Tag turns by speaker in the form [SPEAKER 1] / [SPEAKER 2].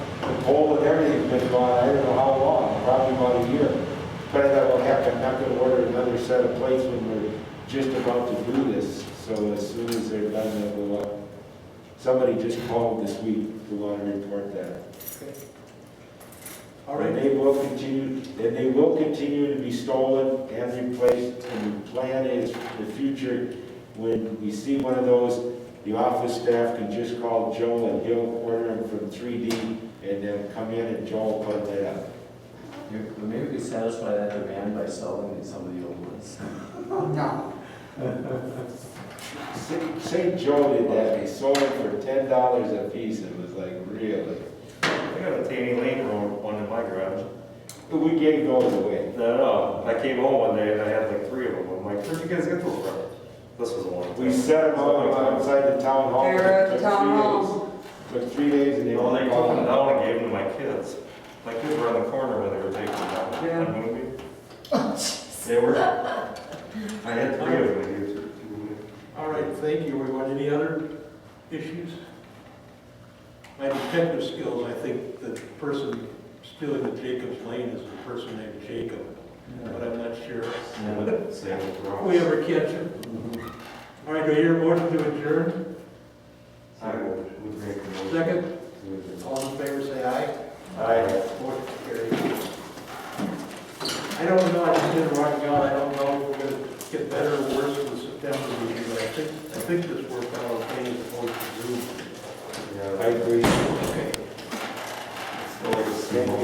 [SPEAKER 1] cold and everything's been gone, I don't know how long, probably about a year. But I thought, well, heck, I'm not gonna order another set of plates when we're just about to do this, so as soon as they're done, they'll go up. Somebody just called this week to want to report that.
[SPEAKER 2] All
[SPEAKER 1] And
[SPEAKER 2] right,
[SPEAKER 1] they will continue, and they will continue to be stolen and replaced, and the plan is for the future, when we see one of those, the office staff can just call Joe and he'll order them from three D, and then come in and Joe will put that up.
[SPEAKER 3] You- Maybe we satisfy that demand by selling these- some of the old ones.
[SPEAKER 2] no,
[SPEAKER 1] St. St. Joe did that, they sold them for ten dollars a piece, it was like, really?
[SPEAKER 4] I got a Danny Lane room, one in my garage.
[SPEAKER 1] But we gave those away.
[SPEAKER 4] No, no, I came home one day and I had like three of them. I'm like, where'd you guys get those from? This was one.
[SPEAKER 1] We set them up outside the town hall.
[SPEAKER 2] they were at
[SPEAKER 1] Took
[SPEAKER 2] the
[SPEAKER 1] three
[SPEAKER 2] town
[SPEAKER 1] days.
[SPEAKER 2] hall.
[SPEAKER 1] Took three days and they
[SPEAKER 4] You
[SPEAKER 1] all
[SPEAKER 4] know, they took them
[SPEAKER 1] gone.
[SPEAKER 4] down and gave them to my kids. My kids were on the corner when they were taking them down.
[SPEAKER 2] Yeah.
[SPEAKER 4] That movie. They were. I had three of them. and you took two.
[SPEAKER 2] All right, thank you, everyone. Any other issues? My detective skills, I think the person stealing the Jacob's Lane is the person named Jacob, but I'm not sure.
[SPEAKER 3] Yeah.
[SPEAKER 4] Sam was wrong.
[SPEAKER 2] We ever catch him? All right, do I hear a motion to adjourn?
[SPEAKER 4] I would, would make a motion.
[SPEAKER 2] Second,
[SPEAKER 4] to adjourn.
[SPEAKER 2] all in favor, say aye.
[SPEAKER 4] Aye.
[SPEAKER 2] Motion carried. I don't know, I just did rock out, I don't know if we're gonna get better or worse with September meeting, but I think, I think this worked out okay as opposed to Zoom.
[SPEAKER 4] Yeah,
[SPEAKER 1] I agree.
[SPEAKER 2] Okay.
[SPEAKER 4] it's still like a
[SPEAKER 1] Thank you.
[SPEAKER 4] small-